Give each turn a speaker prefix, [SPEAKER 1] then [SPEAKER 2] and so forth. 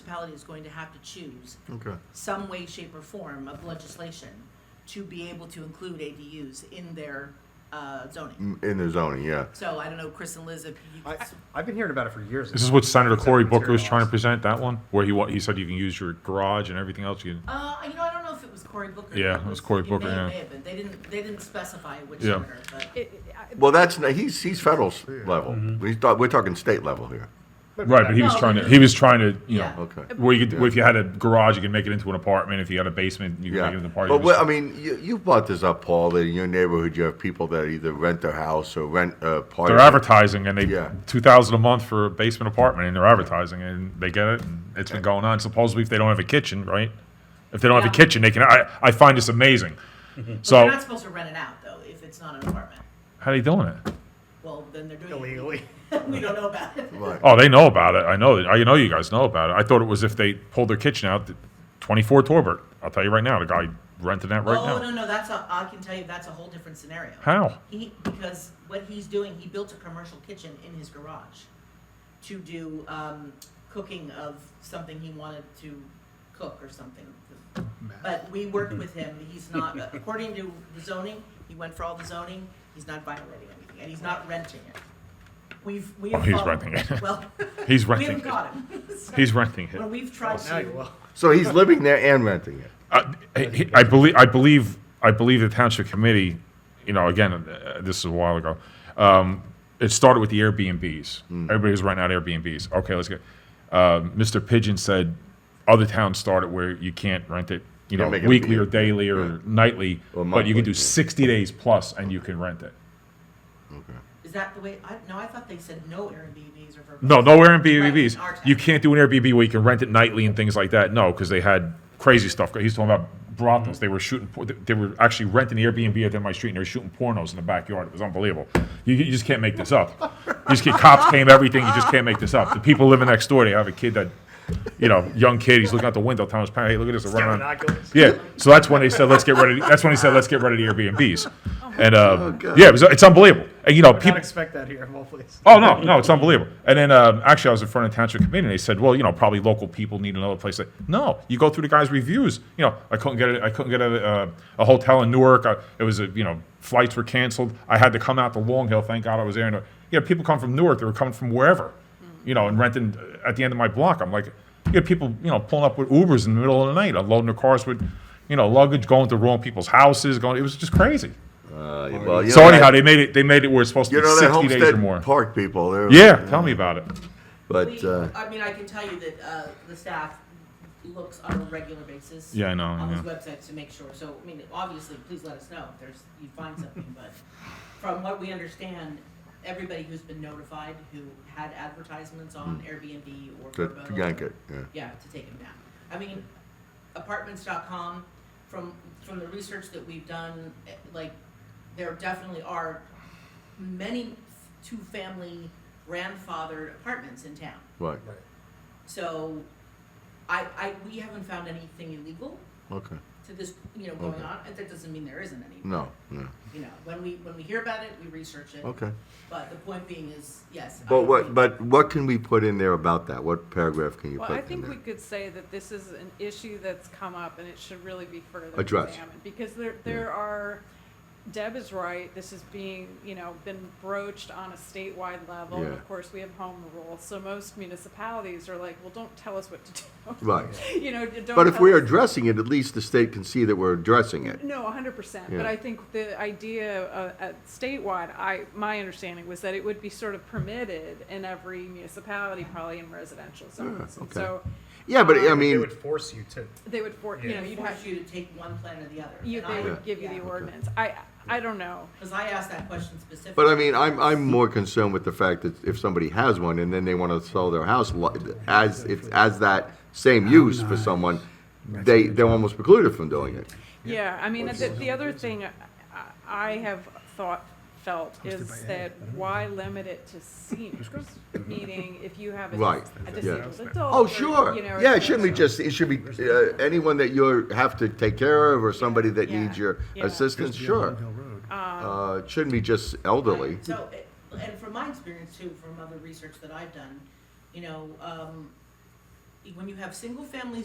[SPEAKER 1] municipality is going to have to choose
[SPEAKER 2] Okay,
[SPEAKER 1] some way, shape, or form of legislation to be able to include ADUs in their uh, zoning.
[SPEAKER 2] Mm, in the zoning, yeah.
[SPEAKER 1] So I don't know, Chris and Liz, if you.
[SPEAKER 3] I, I've been hearing about it for years.
[SPEAKER 4] This
[SPEAKER 3] now.
[SPEAKER 4] is what Senator
[SPEAKER 3] It's
[SPEAKER 4] Cory
[SPEAKER 3] never
[SPEAKER 4] Booker was trying to
[SPEAKER 3] materialized.
[SPEAKER 4] present, that one, where he, wa- he said you can use your garage and everything else, you can,
[SPEAKER 1] Uh, you know, I don't know if it was Cory Booker.
[SPEAKER 4] Yeah, it was Cory
[SPEAKER 1] may-
[SPEAKER 4] Booker,
[SPEAKER 1] It
[SPEAKER 4] yeah.
[SPEAKER 1] may have been, they didn't, they didn't specify which
[SPEAKER 4] Yeah.
[SPEAKER 1] order, but.
[SPEAKER 5] It- I-
[SPEAKER 2] Well, that's, not- he's, he's federal s- level.
[SPEAKER 4] Mm-hmm.
[SPEAKER 2] He's, ta- we're talking state level here.
[SPEAKER 4] right, but he was
[SPEAKER 1] No,
[SPEAKER 4] trying
[SPEAKER 1] but-
[SPEAKER 4] to, he was trying to, you
[SPEAKER 1] Yeah.
[SPEAKER 4] know,
[SPEAKER 2] Okay.
[SPEAKER 4] where you could, where if you had a garage, you could make it into an apartment, if you had a basement, you could
[SPEAKER 2] Yeah.
[SPEAKER 4] make it into an
[SPEAKER 2] But
[SPEAKER 4] apartment.
[SPEAKER 2] what, I mean, you, you brought this up, Paul, that in your neighborhood, you have people that either rent their house or rent uh, a part
[SPEAKER 4] They're
[SPEAKER 2] of it.
[SPEAKER 4] advertising and they,
[SPEAKER 2] Yeah.
[SPEAKER 4] two thousand a month for a basement apartment and they're advertising and they get it and it's been going on. Supposedly if they don't have a kitchen, right? If they don't have
[SPEAKER 1] Yeah.
[SPEAKER 4] a kitchen, they can, I, I find this amazing.
[SPEAKER 1] They're
[SPEAKER 4] So,
[SPEAKER 1] not supposed to rent it out, though, if it's not an apartment.
[SPEAKER 4] how are they doing it?
[SPEAKER 1] Well, then they're doing it
[SPEAKER 3] Illegally.
[SPEAKER 1] We don't know about it.
[SPEAKER 2] Right.
[SPEAKER 4] Oh, they know about it. I know. that- I know you guys know about it. I thought it was if they pulled their kitchen out. th- Twenty-four Torbert. I'll tell you right now. The guy renting that right
[SPEAKER 1] oh
[SPEAKER 4] now.
[SPEAKER 1] no, no, that's a, I can tell you that's a whole different scenario.
[SPEAKER 4] How?
[SPEAKER 1] He because what he's doing, he built a commercial kitchen in his garage to do um, cooking of something he wanted to cook or something. But we worked
[SPEAKER 4] Mm-hmm.
[SPEAKER 1] with him. He's not uh, according to the zoning. He went for all the zoning. He's not violating anything, and he's not renting it. We've we've
[SPEAKER 4] Oh, he's
[SPEAKER 1] followed-
[SPEAKER 4] renting it.
[SPEAKER 1] Well,
[SPEAKER 4] He's
[SPEAKER 1] we
[SPEAKER 4] renting.
[SPEAKER 1] haven't
[SPEAKER 4] It.
[SPEAKER 1] caught him. So
[SPEAKER 4] He's renting it.
[SPEAKER 1] when we've tried
[SPEAKER 3] Oh, Now
[SPEAKER 1] to
[SPEAKER 3] you will.
[SPEAKER 2] So he's living there and renting it.
[SPEAKER 4] I, I- I believe, I believe, I believe the township committee, you know, again, uh, this is a while ago. Um, it started with the Airbnbs.
[SPEAKER 2] Hmm.
[SPEAKER 4] Everybody was renting out Airbnbs. Okay, let's go. Uh, Mr. Pigeon said other towns started where you can't rent it, you
[SPEAKER 2] Yeah,
[SPEAKER 4] know,
[SPEAKER 2] make it
[SPEAKER 4] weekly
[SPEAKER 2] be-
[SPEAKER 4] or daily or nightly,
[SPEAKER 2] Or
[SPEAKER 4] but
[SPEAKER 2] monthly,
[SPEAKER 4] you can do
[SPEAKER 2] yeah.
[SPEAKER 4] sixty days plus and you can rent it.
[SPEAKER 1] Is that the way? I, no, I thought they said no Airbnbs or.
[SPEAKER 4] No, no
[SPEAKER 1] Right,
[SPEAKER 4] Airbnbs.
[SPEAKER 1] our town.
[SPEAKER 4] You can't do an Airbnb where you can rent it nightly and things like that. No, because they had crazy stuff. He's talking about brothels. They were shooting. por- They were actually renting the Airbnb at the end of my street, and they were shooting pornos in the backyard. It was unbelievable. You, you just can't make this up. You just get cops came everything. You just can't make this up. The people living next door, they have a kid that, you know, young kid. He's looking out the window, telling his parents, "Hey, look at this, they're
[SPEAKER 3] Got
[SPEAKER 4] running." on."
[SPEAKER 3] binoculars.
[SPEAKER 4] Yeah, so that's when they said, let's get rid of, that's when he said, let's get rid of the Airbnbs. And,
[SPEAKER 1] Oh,
[SPEAKER 4] uh, yeah, it was- it's unbelievable. And, you know,
[SPEAKER 3] Not
[SPEAKER 4] people,
[SPEAKER 3] expect that here, of all places.
[SPEAKER 4] Oh no, no, it's unbelievable. And then um, actually, I was in front of the township committee, and they said, "Well, you know, probably local people need another place." Like, no, you go through the guy's reviews. You know, I couldn't get a, I couldn't get a, uh, a hotel in Newark. I, it was a, you know, flights were canceled. I had to come out to Long Hill. Thank God I was there. And uh, you know, people come from Newark. They were coming from wherever, you know, and renting uh, at the end of my block. I'm like, you get people, you know, pulling up with Ubers in the middle of the night, unloading their cars with, you know, luggage, going to wrong people's houses. Going, it was just crazy.
[SPEAKER 2] Uh, well, you
[SPEAKER 4] so
[SPEAKER 2] know
[SPEAKER 4] anyhow,
[SPEAKER 2] that-
[SPEAKER 4] they made it. They made it where it's supposed to
[SPEAKER 2] You
[SPEAKER 4] be
[SPEAKER 2] know that
[SPEAKER 4] sixty days or more.
[SPEAKER 2] Homestead Park people, they're.
[SPEAKER 4] Yeah, tell me about it.
[SPEAKER 2] But,
[SPEAKER 1] We-
[SPEAKER 2] uh,
[SPEAKER 1] I mean, I can tell you that uh, the staff looks on a regular basis.
[SPEAKER 4] Yeah, I know,
[SPEAKER 1] On this
[SPEAKER 4] yeah.
[SPEAKER 1] website to make sure. So, I mean, obviously, please let us know if there's, you find something. But from what we understand, everybody who's been notified who had advertisements on Airbnb or
[SPEAKER 2] to
[SPEAKER 1] Vrbo
[SPEAKER 2] to yank it, Hmm. yeah.
[SPEAKER 1] yeah, to take them down. I mean, apartments.com, from, from the research that we've done, eh, like, there definitely are many two-family grandfathered apartments in town.
[SPEAKER 2] Right,
[SPEAKER 1] So, I, I, we haven't found anything illegal
[SPEAKER 2] okay.
[SPEAKER 1] to this, you know, going
[SPEAKER 2] Okay.
[SPEAKER 1] on, and that doesn't mean there isn't any.
[SPEAKER 2] No, no,
[SPEAKER 1] You know, when we, when we hear about it, we research it.
[SPEAKER 2] okay.
[SPEAKER 1] But the point being is, yes. I
[SPEAKER 2] But
[SPEAKER 1] agree.
[SPEAKER 2] what, but what can we put in there about that? What paragraph can you put
[SPEAKER 5] Well,
[SPEAKER 2] in
[SPEAKER 5] I
[SPEAKER 2] there?
[SPEAKER 5] think we could say that this is an issue that's come up and it should really be further
[SPEAKER 2] Addressed.
[SPEAKER 5] examined. Because there, there are, Deb is right, this is being, you know, been broached on a statewide level. And
[SPEAKER 2] Yeah.
[SPEAKER 5] of course, we have home rule, so most municipalities are like, well, don't tell us what to do.
[SPEAKER 2] Right.
[SPEAKER 5] You know, don't tell
[SPEAKER 2] But if we're
[SPEAKER 5] us-
[SPEAKER 2] addressing it, at least the state can see that we're addressing it.
[SPEAKER 5] No, hundred percent,
[SPEAKER 2] Yeah.
[SPEAKER 5] but I think the idea uh, at statewide, I, my understanding was that it would be sort of permitted in every municipality, probably in residential zones. And
[SPEAKER 2] Ah, okay.
[SPEAKER 5] So
[SPEAKER 2] Yeah, but I
[SPEAKER 3] They
[SPEAKER 2] mean,
[SPEAKER 3] would force you to.
[SPEAKER 5] they would, for- you
[SPEAKER 3] Yeah.
[SPEAKER 5] know,
[SPEAKER 1] It
[SPEAKER 5] you'd have,
[SPEAKER 1] forces you to take one plan or the other.
[SPEAKER 5] you,
[SPEAKER 1] and
[SPEAKER 5] they
[SPEAKER 1] I-
[SPEAKER 5] would give you
[SPEAKER 1] yeah.
[SPEAKER 5] the ordinance. I, I don't know.
[SPEAKER 1] Because I asked that question specifically.
[SPEAKER 2] but I mean, I'm, I'm more concerned with the fact that if somebody has one and then they want to sell their house li- as, it's, as that same use for someone, they, they're almost precluded from doing it.
[SPEAKER 5] Yeah, I mean, the, the other thing I- I have thought, felt is that why limit it to seniors? Meaning, if you have a
[SPEAKER 2] Right,
[SPEAKER 5] a
[SPEAKER 2] yeah.
[SPEAKER 5] disabled adult.
[SPEAKER 2] Oh,
[SPEAKER 5] or,
[SPEAKER 2] sure.
[SPEAKER 5] you know,
[SPEAKER 2] Yeah, it
[SPEAKER 5] or-
[SPEAKER 2] shouldn't be just, it should be, uh, anyone that you have to take care of or somebody that
[SPEAKER 5] Yeah.
[SPEAKER 2] needs your
[SPEAKER 5] Yeah.
[SPEAKER 2] assistance, sure. Uh, it shouldn't be just elderly.
[SPEAKER 1] Right. So, it- and from my experience too, from other research that I've done, you know, um, when you have single-family